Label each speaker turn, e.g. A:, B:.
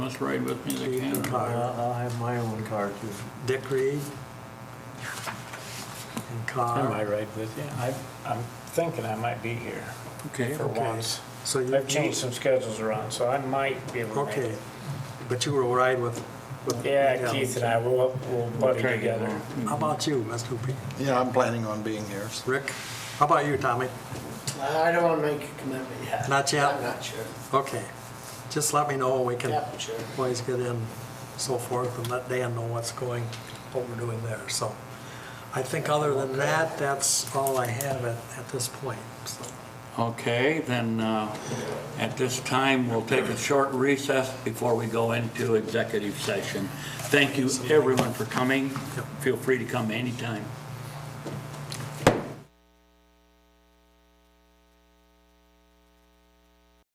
A: this ride with me that
B: I'll
A: can.
B: Uh, I'll have my own car too. Dick Reed and
C: I might
B: Carr.
C: ride with you. I, I'm thinking I might be here
A: Okay,
C: for
B: okay.
C: once.
B: So you-
C: I've changed some schedules around, so I might be able to make
B: Okay,
C: it.
B: but you will ride with, with.
C: Yeah, Keith and I, we'll, we'll buddy
A: Try to get
C: together.
A: along.
B: How about you, Mr. P?
D: Yeah, I'm planning on being here. so-
B: Rick? How about you, Tommy?
E: I don't want to make a commitment yet.
B: Not yet?
E: I'm not sure.
B: Okay, just let me know, we can
E: Yeah, sure.
B: always get in, so forth, and let Dan know what's going, what we're doing there, so. I think other than that, that's all I have at, at this point, so.
A: Okay, then, uh, at this time, we'll take a short recess before we go into executive session. Thank you, everyone, for coming. Feel free to come anytime.